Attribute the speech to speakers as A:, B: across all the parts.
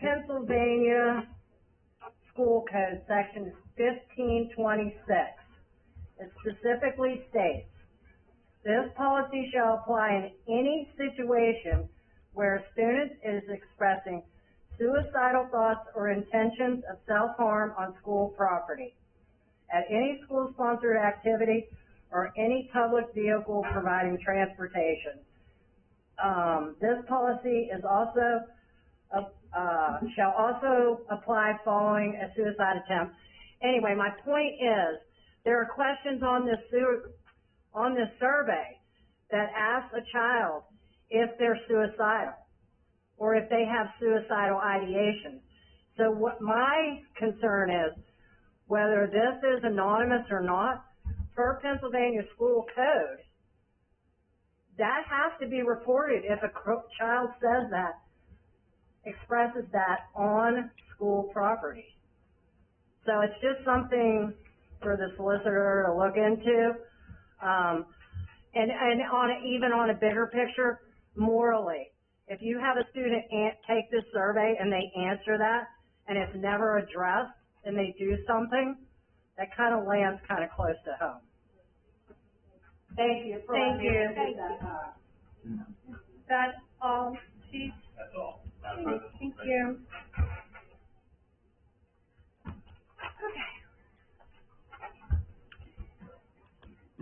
A: Pennsylvania School Code, section fifteen twenty-six. It specifically states, this policy shall apply in any situation where a student is expressing suicidal thoughts or intentions of self-harm on school property, at any school-sponsored activity, or any public vehicle providing transportation. Um, this policy is also, uh, uh, shall also apply following a suicide attempt. Anyway, my point is, there are questions on this sewer, on this survey that ask a child if they're suicidal or if they have suicidal ideation. So what my concern is, whether this is anonymous or not, per Pennsylvania school code, that has to be reported if a cr- child says that, expresses that on school property. So it's just something for the solicitor to look into. Um, and, and on, a- even on a bigger picture, morally, if you have a student an take this survey and they answer that, and it's never addressed, and they do something, that kind of lands kind of close to home.
B: Thank you for letting me.
C: Thank
B: you.
C: That's all, Chief?
D: That's all. Madam President.
C: um, Thank you. Okay.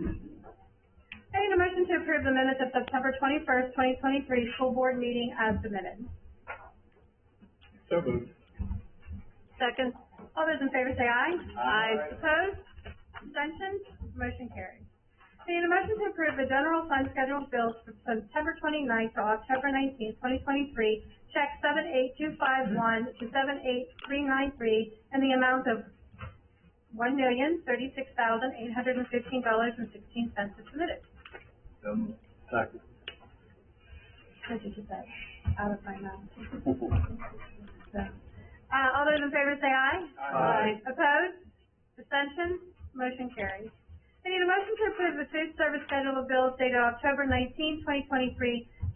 C: I need a motion to approve the minutes of September twenty-first, twenty twenty-three, school board meeting as submitted.
D: So moved.
C: Second. All those in favor say aye.
D: Aye.
C: Opposed? Abstentions? Motion carries. I need a motion to approve the general fund schedule of bills for September 29th to October nineteenth, twenty twenty-three, check seven eight two five one to seven eight three nine three, and the amount of one million thirty-six thousand eight hundred and fifteen dollars and sixteen cents is submitted.
D: So moved. Second.
C: I just did that out of my mouth. So, Uh, all those in favor say aye.
D: Aye.
C: Opposed? Abstentions? Motion carries. I need a motion to approve the food service schedule of bills dated October 19, 2023,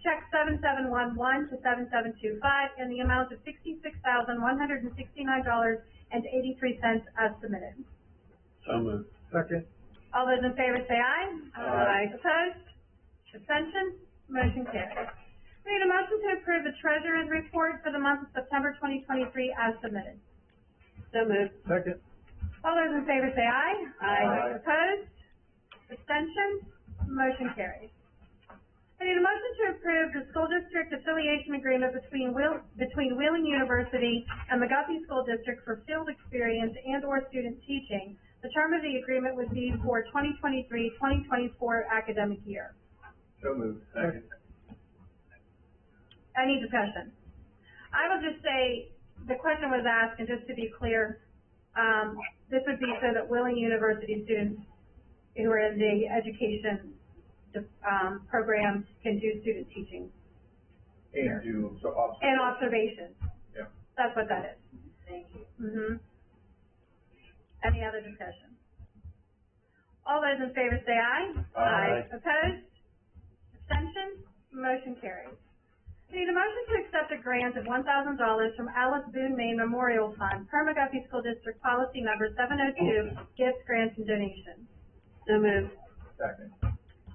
C: check seven seven one one to seven seven two five in the amount of sixty-six thousand, one hundred and sixty-nine dollars and eighty-three cents as submitted.
D: So moved. Second.
C: All those in favor say aye.
D: Aye.
C: Opposed? Abstentions? Motion carries. I need a motion to approve the treasurer's report for the month of September twenty twenty-three as submitted.
B: So moved.
D: Second.
C: All those in favor say aye.
B: Aye.
D: Aye.
C: Opposed? Abstentions? Motion carries. I need a motion to approve the school district affiliation agreement between Wheel, between Wheeling University and the Guthrie School District for field experience and or student teaching. The term of the agreement would be for 2023-2024 academic year.
D: So moved. Second.
C: Any discussion? I will just say, the question was asked, and just to be clear, um, this would be so that willing university students who are in the education, um, program can do student teaching
D: And you, so obviously.
C: and observations.
D: Yeah.
C: That's what that is.
B: Thank you.
C: Mm-hmm. Any other discussion? All those in favor say aye.
D: Aye.
C: Opposed? Abstentions? Motion carries. I Need a motion to accept a grant of one thousand dollars from Alice Boone Maine Memorial Fund, per McGuffey School District Policy Number seven oh two, gifts, grants, and donations.
B: So moved.
D: Second.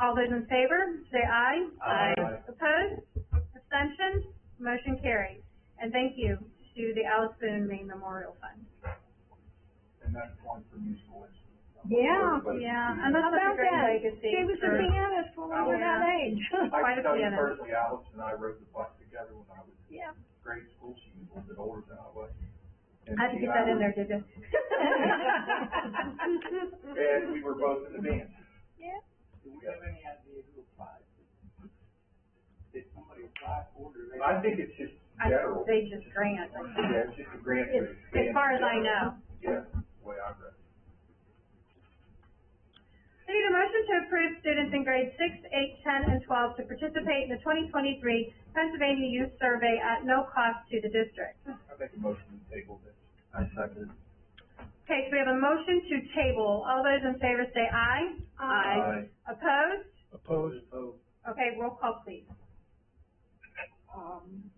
C: All those in favor, say aye.
D: Aye. Aye.
C: Opposed? Abstentions? Motion carries. And thank you to the Alice Boone Maine Memorial Fund.
D: And that's one for new schools.
A: Yeah.
C: Yeah, and that's such a great legacy.
A: She was a
C: for-
A: pianist when we were that age.
D: I
C: Quite a
D: can tell you
C: pianist.
D: personally, Alice and I rode the bus together when I was
C: Yeah.
D: in grade school. She was a little bit older than I was. And
C: Had to
D: she
C: get
D: and I
C: that in
D: were-
C: there, did you?
D: And we were both in the band.
C: Yeah.
D: Do we have any idea who applied? Did somebody apply for it? I think it's just
C: I-
D: general.
C: They just grant.
D: Yeah, it's just a grant. to
C: As- As far as I
D: expand
C: know.
D: general. Yeah, the way I read it.
C: I need a motion to approve students in grades six, eight, ten, and twelve to participate in the twenty twenty-three Pennsylvania Youth Survey at no cost to the district.
D: I make a motion to table this. I second.
C: Okay, so we have a motion to table. All those in favor say aye. Opposed?
D: Opposed? Opposed.
C: Okay, roll call please.
B: Um,